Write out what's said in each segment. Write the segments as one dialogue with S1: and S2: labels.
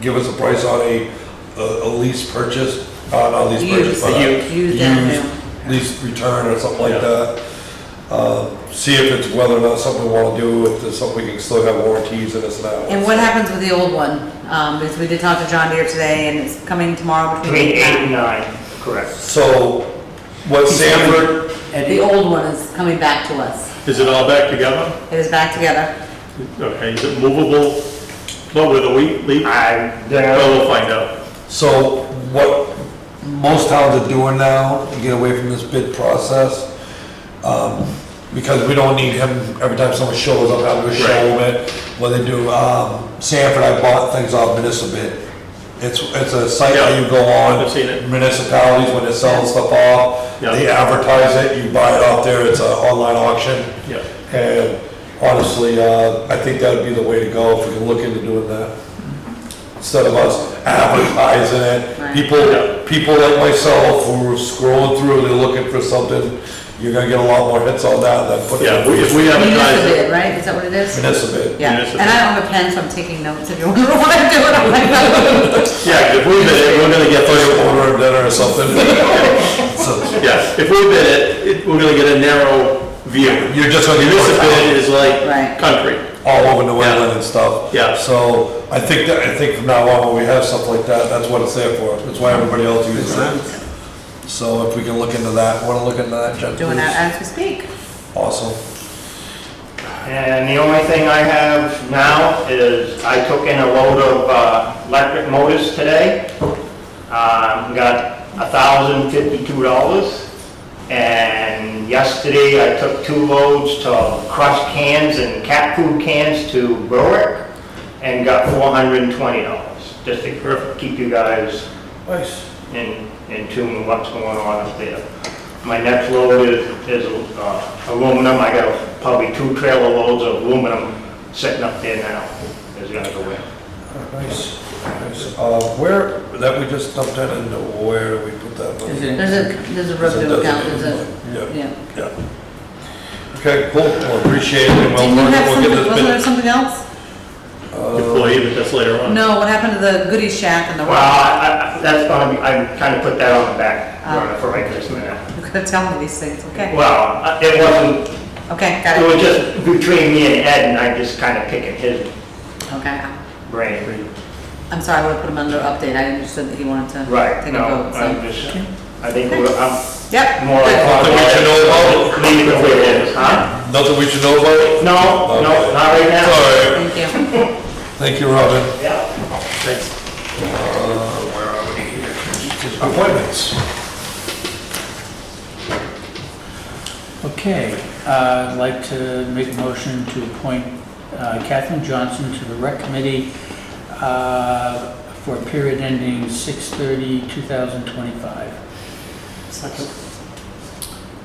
S1: give us a price on a, a a lease purchase, uh, not lease purchase,
S2: Used.
S1: but a.
S2: Used avenue.
S1: used Lease return or something like that. Uh, See if it's whether or not something we wanna do, if there's something we can still have warranties in us now.
S2: And what happens with the old one? Um, because we did talk to John Deere today and it's coming tomorrow between
S3: Between
S2: eight
S3: eight and
S2: and nine.
S3: nine, correct.
S1: So, what Sanford,
S2: The
S3: And
S2: old one is coming back to us.
S4: Is it all back together?
S2: It is back together.
S4: Okay, is it movable? What, with a wheat leaf?
S3: I,
S4: Well,
S3: there,
S4: we'll find out.
S1: so what most towns are doing now, to get away from this bid process, um, because we don't need him, every time someone shows up, having to show him it, what they do, um, Sanford, I bought things off municipal bid. It's, it's a site that you go on.
S4: I've seen it.
S1: Municipalities, when they're selling stuff off,
S4: Yeah.
S1: they advertise it, you buy it off there, it's an online auction.
S4: Yeah.
S1: And honestly, uh, I think that'd be the way to go if we can look into doing that. Instead of us advertising it,
S2: Right.
S1: people, people like myself who are scrolling through, they're looking for something, you're gonna get a lot more hits on that than putting.
S4: Yeah, we- if we advertise
S2: Municipal
S4: it,
S2: bid, right? Is that what it is?
S1: Municipal bid.
S2: Yeah,
S4: Municipal.
S2: and I don't have a pen, so I'm taking notes if you wonder what I'm doing. I'm like, "Oh."
S4: yeah, 'cause if we bid it, we're gonna get,
S1: If I order a dinner or something. So,
S4: yeah, if we bid it, it, we're gonna get a narrow view.
S1: You're just gonna get more
S4: Municipal
S1: power.
S4: bid is like
S2: Right.
S4: country.
S1: all over New
S4: Yeah.
S1: England and stuff.
S4: Yeah.
S1: So I think that, I think from now on, when we have stuff like that, that's what it's there for. That's why everybody else uses it. So if we can look into that, wanna look into that, Jen,
S2: Doing
S1: please?
S2: that as we speak.
S1: Awesome.
S3: and the only thing I have now is I took in a load of uh, electric motors today. Um, Got a thousand fifty-two dollars. And yesterday I took two loads to crushed cans and cat food cans to Berwick and got four hundred and twenty dollars, just to keep you guys
S1: Nice.
S3: in, in tune with what's going on up there. My next load is, is uh, aluminum, I got probably two trailer loads of aluminum sitting up there now, is gonna go in.
S1: Nice. Nice. Uh, where, that we just dumped that into, where do we put that? money?
S2: There's a, there's a revenue account, there's a,
S1: Yeah,
S2: yeah.
S1: yeah. Okay, cool. Well, appreciate it. and we'll-
S2: Didn't you have
S1: we'll get
S2: something,
S1: this
S2: wasn't there
S1: bit-
S2: something else?
S4: Employee, but that's later on.
S2: No, what happened to the goodie shack and the
S3: Well,
S2: rock?
S3: I, I, that's gonna be, I kinda put that on the back burner
S2: Oh.
S3: for right this minute.
S2: You're gonna tell me these things, okay?
S3: Well, uh, it wasn't,
S2: Okay, got
S3: it
S2: it.
S3: was just between me and Ed, and I just kinda picking his
S2: Okay.
S3: brain.
S2: I'm sorry, I would've put him under update, I understood that he wanted to
S3: Right,
S2: take a
S3: no,
S2: vote,
S3: I'm
S2: so.
S3: just, I think we're, I'm
S2: Yep.
S3: more.
S2: good.
S1: Something we should know about?
S3: Leave it where it is, huh?
S1: Nothing we should know about?
S3: No, no, not right now.
S1: Sorry.
S2: Thank you.
S1: Thank you, Robin.
S3: Yeah.
S1: Appointments.
S5: Okay, uh, I'd like to make a motion to appoint uh, Catherine Johnson to the Rec Committee uh, for a period ending 6/30/2025.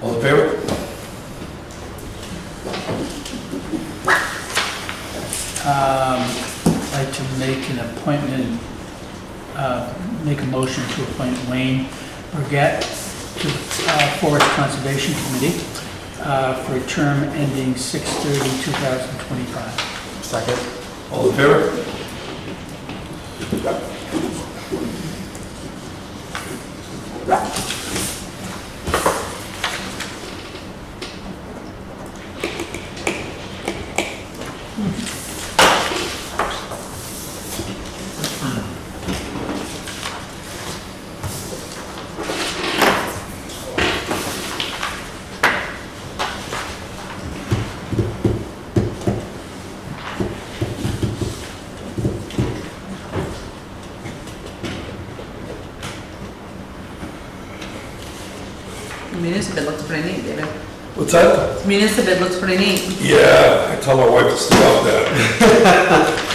S1: All in favor?
S5: Um, I'd like to make an appointment, uh, make a motion to appoint Wayne Burgett to uh, Forest Conservation Committee uh, for a term ending 6/30/2025.
S1: Second. All in favor?
S2: Municipal looks pretty neat, David.
S1: What's that?
S2: Municipal looks pretty neat.
S1: Yeah, I tell my wife to stop that.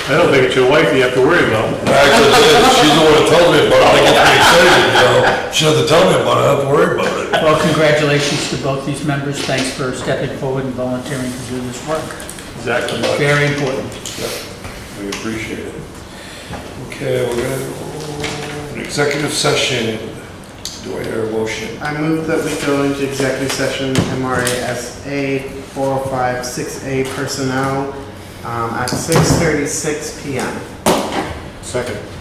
S4: I don't think it's your wife you have to worry about.
S1: Actually, she's the one that tells me about it, I get pretty excited, you know? She doesn't tell me about it, I have to worry about it.
S5: Well, congratulations to both these members. Thanks for stepping forward and volunteering to do this work.
S4: Exactly.
S5: Very important.
S1: We appreciate it. Okay, we're gonna, an executive session. Do I hear a motion?
S6: I move that we go into executive session, MRSA 4056A personnel, um, at 6:36 PM.
S1: Second.